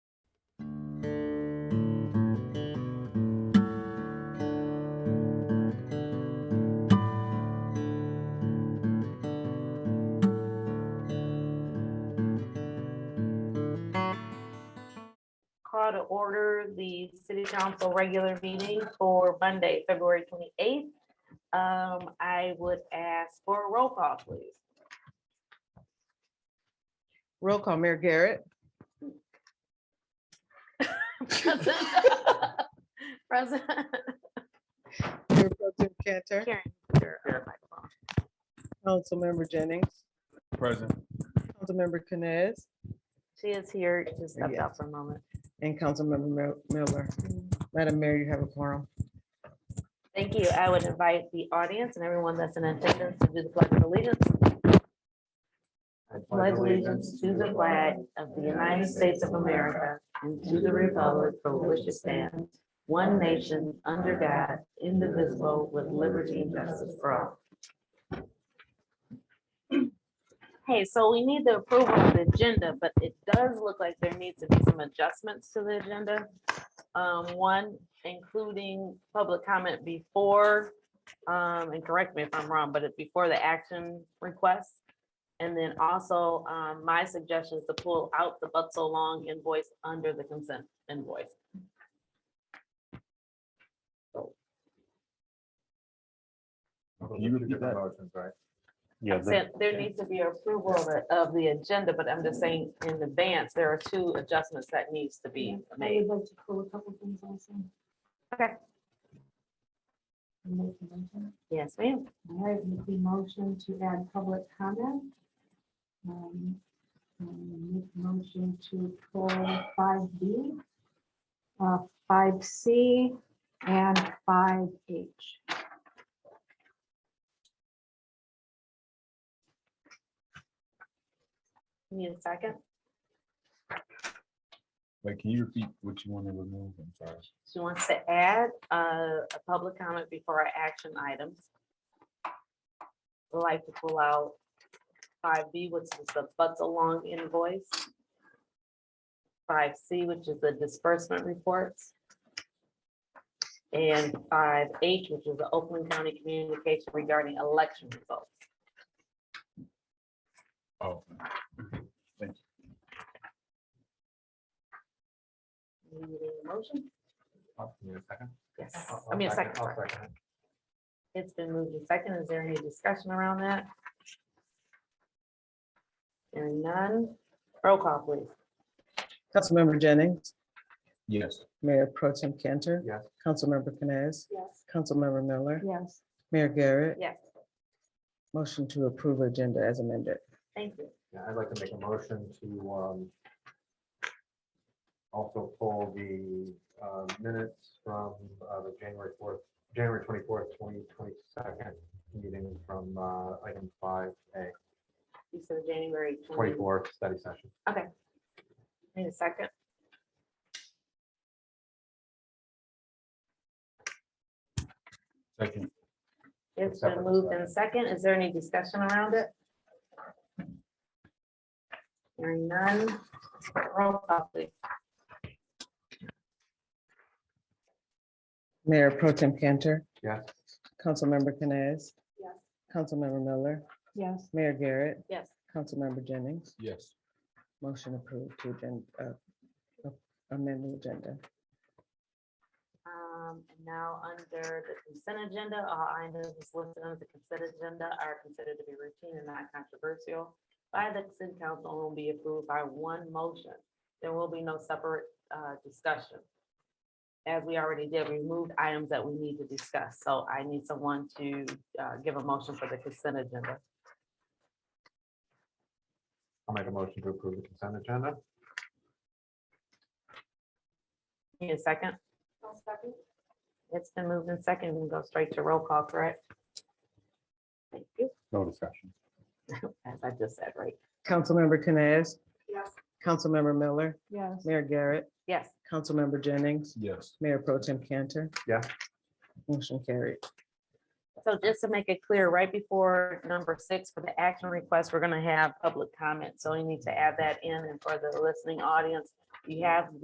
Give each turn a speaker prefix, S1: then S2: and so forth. S1: call to order the city council regular meeting for Monday, February twenty-eighth. Um, I would ask for a roll call, please.
S2: Roll call, Mayor Garrett,
S1: President
S2: Mayor Pro Tem Cantor,
S1: Karen. you're on microphone.
S2: Councilmember Jennings,
S3: Present.
S2: Councilmember Canes,
S1: She is here, just stepped out for a moment.
S2: and Councilmember Mil- Miller. Madam Mayor, you have a quorum.
S1: Thank you. I would invite the audience and everyone that's in attendance to do the pledge of allegiance. pledge allegiance to the flag of the United States of America and to the republic for which it stands, one nation, under God, indivisible, with liberty and justice for all. Hey, so we need the approval of the agenda, but it does look like there needs to be some adjustments to the agenda. Um, one, including public comment before, um, and correct me if I'm wrong, but it's before the action request. And then also, um, my suggestion is to pull out the but so long invoice under the consent invoice.
S3: Can you repeat that?
S4: Yeah,
S1: I
S4: the-
S1: Said there needs to be approval of, the- of the agenda, but I'm just saying in advance, there are two adjustments that needs to be made. Okay.
S5: Make a motion.
S1: Yes, ma'am.
S5: All right, make the motion to add public comment. Um, um, Make motion to pull five B, uh, five C, and five H.
S1: Need a second?
S3: Wait, can you repeat what you want to remove? I'm sorry.
S1: She wants to add uh, a public comment before our action items. Would Like to pull out five B, which is the butts along invoice. Five C, which is the disbursement reports. And five H, which is the Oakland County communication regarding election results.
S3: Oh,
S1: We need a Motion?
S6: oh, I
S1: Yes, I mean, a second. sorry. It's been moved to second. Is there any discussion around that? Hearing none. Roll call, please.
S2: Councilmember Jennings,
S3: yes.
S2: Mayor Pro Tem Cantor.
S6: Yes.
S2: Councilmember Canes,
S5: Yes.
S2: Councilmember Miller,
S5: Yes.
S2: Mayor Garrett,
S1: Yes,
S2: motion to approve agenda as amended.
S1: thank you.
S6: Yeah, I'd like to make a motion to, um, also pull the, uh, minutes from, uh, the January fourth, January twenty-fourth, twenty twenty-second meeting from, uh, item five A,
S1: You said January twenty-four.
S6: twenty-fourth study session.
S1: Need a second?
S3: Second.
S1: It's been moved in second. Is there any discussion around it? Hearing none. Roll call, please.
S2: Mayor Pro Tem Cantor,
S6: Yes,
S2: Councilmember Canes,
S5: Yes.
S2: Councilmember Miller,
S5: Yes.
S2: Mayor Garrett,
S1: Yes,
S2: Councilmember Jennings,
S3: Yes.
S2: motion approved to agenda, uh, amend the agenda.
S1: um, and now under the consent agenda, all items listed under the consent agenda are considered to be routine and not controversial by the city council and will be approved by one motion. There will be no separate, uh, discussion. As we already did, we moved items that we need to discuss, so I need someone to, uh, give a motion for the consent agenda.
S6: I'll make a motion to approve the consent agenda.
S1: Need a second? It's been moved in second, we can go straight to roll call, correct? Thank you,
S3: No discussion.
S1: as I just said, right?
S2: Councilmember Canes,
S5: Yes.
S2: Councilmember Miller,
S5: Yes.
S2: Mayor Garrett,
S1: Yes,
S2: Councilmember Jennings,
S3: Yes.
S2: Mayor Pro Tem Cantor.
S6: Yeah.
S2: Motion carried.
S1: so just to make it clear, right before number six for the action request, we're gonna have public comment, so you need to add that in, and for the listening audience, you have